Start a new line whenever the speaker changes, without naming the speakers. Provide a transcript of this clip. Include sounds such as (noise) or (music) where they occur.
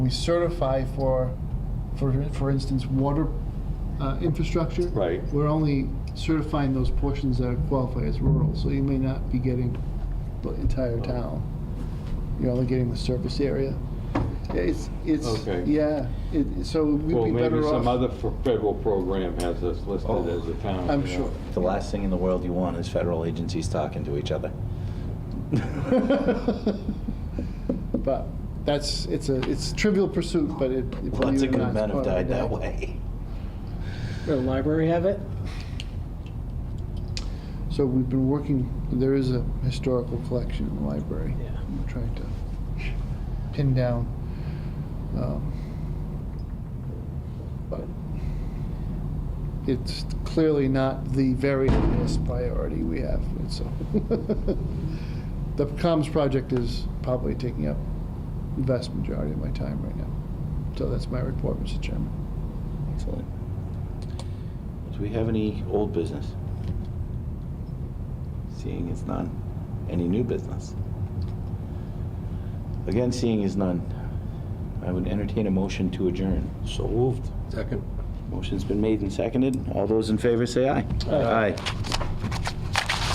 certify for, for, for instance, water uh, infrastructure.
Right.
We're only certifying those portions that qualify as rural, so you may not be getting the entire
Oh.
town. You're only getting the surface area. It's, it's,
Okay.
yeah, it, so
Well,
we'd be
maybe
better off,
some
Oh,
other f- federal program has us listed as a town.
I'm
you know.
sure. (laughs)
The last thing in the world you want is federal agencies talking to each other.
But that's, it's a, it's trivial pursuit, but it. believe
Lots
it
of
or not,
good
it's
men have
part of
died
the
that
day.
way.
The library have it?
So we've been working, there is a historical collection in the library.
Yeah.
We're trying to pin down. um, But it's clearly not the very highest priority we have, and so. (laughs) The comms project is probably taking up the vast majority of my time right now. So that's my report, Mr. Chairman.
Excellent. Do we have any old business? Seeing is none. Any new business? Again, seeing is none. I would entertain a motion to adjourn. So moved.
Second.
Motion's been made and seconded. All those in favor say aye. Aye.